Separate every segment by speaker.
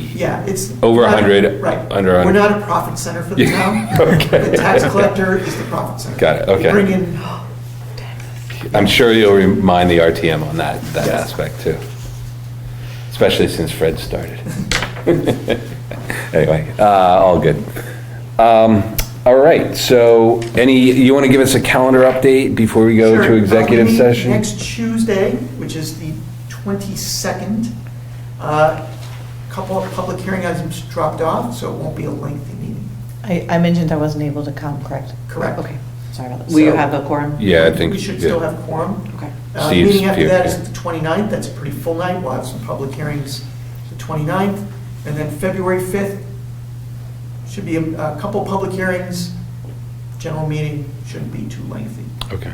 Speaker 1: Yeah, it's.
Speaker 2: Over a
Speaker 1: not-
Speaker 2: hundred,
Speaker 1: Right.
Speaker 2: under a
Speaker 1: We're
Speaker 2: hundred.
Speaker 1: not a profit center for the
Speaker 2: Yeah,
Speaker 1: town.
Speaker 2: okay.
Speaker 1: The tax collector is the profit center.
Speaker 2: Got it,
Speaker 1: We
Speaker 2: okay.
Speaker 1: Bring in,
Speaker 2: I'm sure you'll remind the RTM on that, that aspect too. Especially since Fred started. Anyway, uh, all good. Um, all right, so any, you want to give us a calendar update before we go
Speaker 1: Sure.
Speaker 2: to
Speaker 1: Uh, we
Speaker 2: executive
Speaker 1: meet
Speaker 2: session?
Speaker 1: Next Tuesday, which is the 22nd, a couple of public hearing items dropped off, so it won't be a lengthy meeting.
Speaker 3: I, I mentioned I wasn't able to come, correct?
Speaker 1: Correct.
Speaker 3: Okay, sorry about that. Will you
Speaker 1: So-
Speaker 3: have a quorum?
Speaker 2: Yeah, I think.
Speaker 1: We should
Speaker 2: yeah.
Speaker 1: still have quorum.
Speaker 3: Okay.
Speaker 1: Uh,
Speaker 2: Steve's
Speaker 1: Meeting after
Speaker 2: here,
Speaker 1: that
Speaker 2: yeah.
Speaker 1: is the 29th, that's a pretty full night, we'll have some public hearings the 29th, and then February 5th, should be a a couple public hearings, general meeting, shouldn't be too lengthy.
Speaker 2: Okay.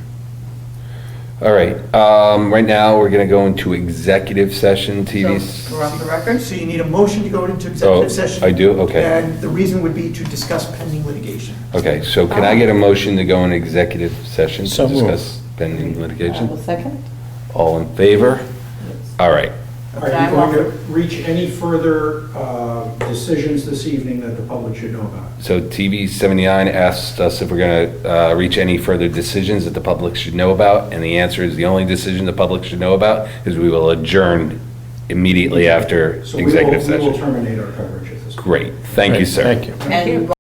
Speaker 2: All right, um, right now, we're going to go into executive session, TV.
Speaker 4: So, We're off the record?
Speaker 1: So you need a motion to go into
Speaker 2: Oh,
Speaker 1: executive session.
Speaker 2: I do? Okay.
Speaker 1: And the reason would be to discuss pending litigation.
Speaker 2: Okay, so can I get a motion to go in executive session
Speaker 5: So
Speaker 2: to
Speaker 5: moved.
Speaker 2: discuss pending
Speaker 4: I will
Speaker 2: litigation?
Speaker 4: second.
Speaker 2: All in favor? All right.
Speaker 6: Are you going to reach any further uh, decisions this evening that the public should know about?
Speaker 2: So TV 79 asked us if we're going to reach any further decisions that the public should know about, and the answer is the only decision the public should know about is we will adjourn immediately after
Speaker 6: So we will-
Speaker 2: executive
Speaker 6: We will
Speaker 2: session.
Speaker 6: terminate our coverage at this point.
Speaker 2: Great, thank you,
Speaker 5: Great,
Speaker 2: sir.
Speaker 5: Thank you.
Speaker 4: And